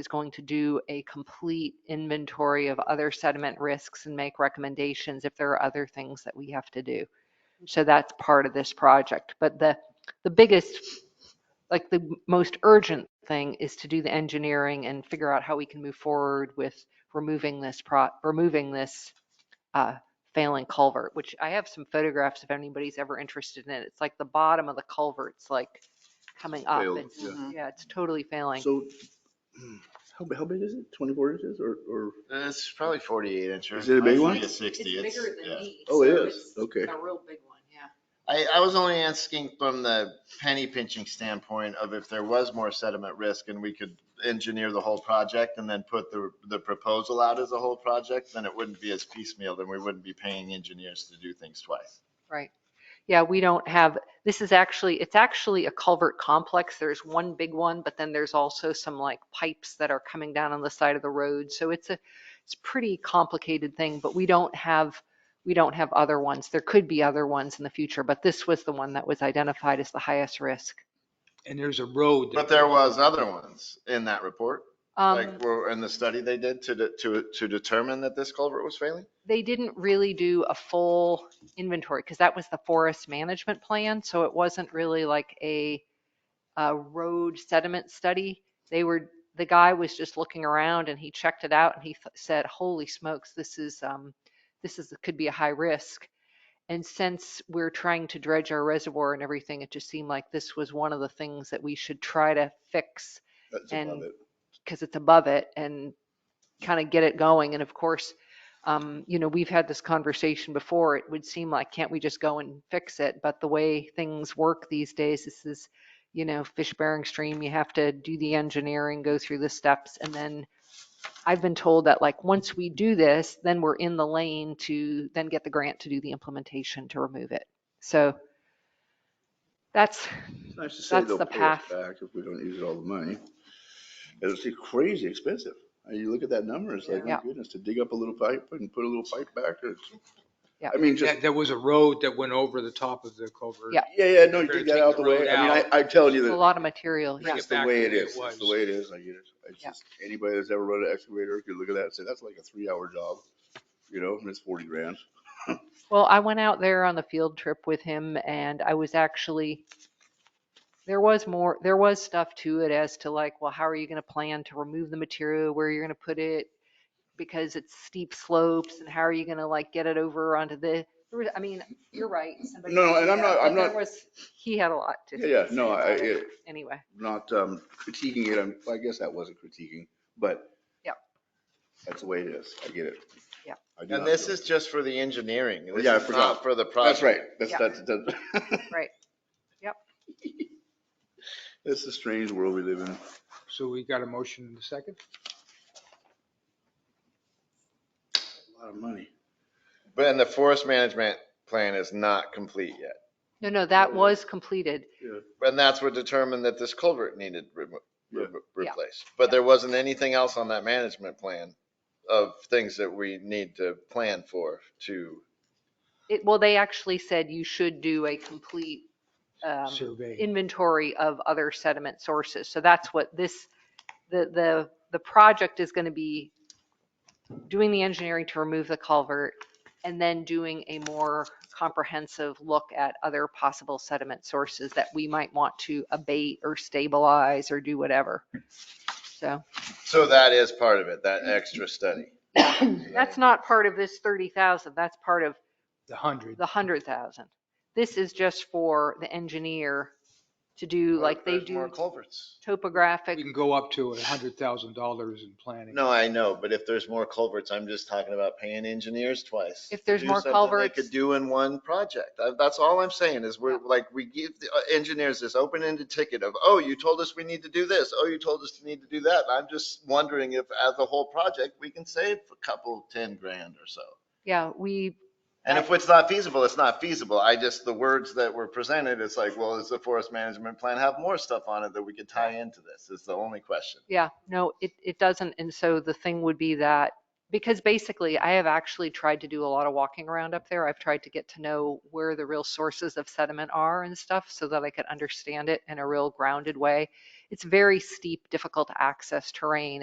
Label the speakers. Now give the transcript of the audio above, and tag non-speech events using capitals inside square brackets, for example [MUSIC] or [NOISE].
Speaker 1: is going to do a complete inventory of other sediment risks and make recommendations if there are other things that we have to do. So that's part of this project. But the, the biggest, like the most urgent thing is to do the engineering and figure out how we can move forward with removing this pro, removing this uh, failing culvert, which I have some photographs if anybody's ever interested in it. It's like the bottom of the culvert's like coming up.
Speaker 2: Failed,
Speaker 1: It's-
Speaker 2: yeah.
Speaker 1: Yeah, it's totally failing.
Speaker 3: So, [CLEARS THROAT] how, bi- how big is it? Twenty-four inches or, or,
Speaker 2: It's probably forty-eight inches.
Speaker 3: Is it a big one?
Speaker 4: It's sixty, it's, yeah.
Speaker 1: me.
Speaker 3: Oh, it so is? it's Okay.
Speaker 1: A real big one, yeah.
Speaker 2: I, I was only asking from the penny pinching standpoint of if there was more sediment risk and we could engineer the whole project and then put the, the proposal out as a whole project, then it wouldn't be as piecemeal, then we wouldn't be paying engineers to do things twice.
Speaker 1: Right. Yeah, we don't have, this is actually, it's actually a culvert complex. There's one big one, but then there's also some like pipes that are coming down on the side of the road. So it's a, it's a pretty complicated thing, but we don't have, we don't have other ones. There could be other ones in the future, but this was the one that was identified as the highest risk.
Speaker 5: And there's a road.
Speaker 2: But there was other ones in that report,
Speaker 1: Um,
Speaker 2: like, were in the study they did to, de- to, to determine that this culvert was failing?
Speaker 1: they didn't really do a full inventory because that was the forest management plan. So it wasn't really like a, a road sediment study. They were, the guy was just looking around and he checked it out and he th- said, holy smokes, this is, um, this is, could be a high risk. And since we're trying to dredge our reservoir and everything, it just seemed like this was one of the things that we should try to fix
Speaker 3: that's
Speaker 1: And-
Speaker 3: above it?
Speaker 1: because it's above it and kind of get it going. And of course, um, you know, we've had this conversation before. It would seem like, can't we just go and fix it? But the way things work these days, this is, you know, fish bearing stream, you have to do the engineering, go through the steps. And then I've been told that like, once we do this, then we're in the lane to then get the grant to do the implementation to remove it. So that's,
Speaker 3: It's nice to say
Speaker 1: That's
Speaker 3: they'll
Speaker 1: the
Speaker 3: pay us
Speaker 1: path.
Speaker 3: back if we don't use all the money. It's crazy expensive. Uh, You look at that number, it's like, my
Speaker 1: Yeah.
Speaker 3: goodness, to dig up a little pipe and put a little pipe back or.
Speaker 1: Yeah.
Speaker 3: I mean, just,
Speaker 5: Yeah, There was a road that went over the top of the culvert.
Speaker 1: Yeah.
Speaker 3: yeah, yeah, no, you
Speaker 5: Take
Speaker 3: dig that out
Speaker 5: the
Speaker 3: the way.
Speaker 5: road
Speaker 3: I mean,
Speaker 5: out.
Speaker 3: I, I tell you
Speaker 1: a
Speaker 3: that,
Speaker 1: lot of material.
Speaker 5: Bring
Speaker 1: Yeah.
Speaker 3: it's
Speaker 5: it
Speaker 3: the
Speaker 5: back to
Speaker 3: way it
Speaker 5: the way it
Speaker 3: is, it's the
Speaker 5: was.
Speaker 3: way it is, I get it. It's
Speaker 1: Yeah.
Speaker 3: just, anybody that's ever run an excavator could look at that and say, that's like a three-hour job, you know, and it's forty grand.
Speaker 1: Well, I went out there on the field trip with him and I was actually, there was more, there was stuff to it as to like, well, how are you going to plan to remove the material, where you're going to put it? Because it's steep slopes and how are you going to like get it over onto the, there was- I mean, you're right. somebody
Speaker 3: No, no,
Speaker 1: pointed
Speaker 3: and I'm
Speaker 1: out,
Speaker 3: not-
Speaker 1: but
Speaker 3: I'm
Speaker 1: there
Speaker 3: not-
Speaker 1: was- He had a lot to.
Speaker 3: Yeah, yeah,
Speaker 1: say
Speaker 3: no,
Speaker 1: about
Speaker 3: I-
Speaker 1: it.
Speaker 3: it-
Speaker 1: Anyway,
Speaker 3: not um, critiquing it. I'm- I guess that wasn't critiquing, but.
Speaker 1: Yep.
Speaker 3: That's the way it is. I get it.
Speaker 1: Yep.
Speaker 3: I do
Speaker 2: And
Speaker 3: not
Speaker 2: this
Speaker 3: feel-
Speaker 2: is just for the engineering. This
Speaker 3: Yeah, I
Speaker 2: is not
Speaker 3: forgot.
Speaker 2: For the
Speaker 3: That's
Speaker 2: project.
Speaker 3: right. That's,
Speaker 1: Yep.
Speaker 3: that's, that's. [LAUGHS]
Speaker 1: Right. Yep.
Speaker 3: It's a strange world we live in.
Speaker 5: So we got a motion in a second?
Speaker 3: A lot of money.
Speaker 2: But, and the forest management plan is not complete yet.
Speaker 1: no, no, that was completed.
Speaker 2: And that's what determined that this culvert needed remo- re-
Speaker 1: Yeah.
Speaker 2: replaced. But there wasn't anything else on that management plan of things that we need to plan for to,
Speaker 1: It, well, they actually said you should do a complete, um,
Speaker 5: Survey.
Speaker 1: inventory of other sediment sources. So that's what this, the, the, the project is going to be doing the engineering to remove the culvert and then doing a more comprehensive look at other possible sediment sources that we might want to abate or stabilize or do whatever. So
Speaker 2: so that is part of it, that extra study.
Speaker 1: Mm-hmm. [COUGHS] that's not part of this 30,000. That's part of
Speaker 5: The hundred.
Speaker 1: the 100,000. This is just for the engineer to do like they
Speaker 2: There's More
Speaker 1: do
Speaker 2: culverts.
Speaker 1: topographic
Speaker 5: We can go up to a hundred thousand dollars in planning.
Speaker 2: No, I know, but if there's more culverts, I'm just talking about paying engineers twice.
Speaker 1: If
Speaker 2: to
Speaker 1: there's
Speaker 2: do
Speaker 1: more
Speaker 2: something
Speaker 1: culverts-
Speaker 2: They could do in one project. Uh, That's all I'm saying is we're
Speaker 1: Yeah.
Speaker 2: like, we give the uh, engineers this open-ended ticket of, oh, you told us we need to do this. Oh, you told us we need to do that. And I'm just wondering if as a whole project, we can save a couple, 10 grand or so.
Speaker 1: Yeah, we,
Speaker 2: And if it's not feasible, it's not feasible. I just, the words that were presented, it's like, well, does the forest management plan have more stuff on it that we could tie into this? Is the only question.
Speaker 1: yeah, no, it, it doesn't. And so the thing would be that, because basically I have actually tried to do a lot of walking around up there. I've tried to get to know where the real sources of sediment are and stuff so that I could understand it in a real grounded way. It's very steep, difficult to access terrain.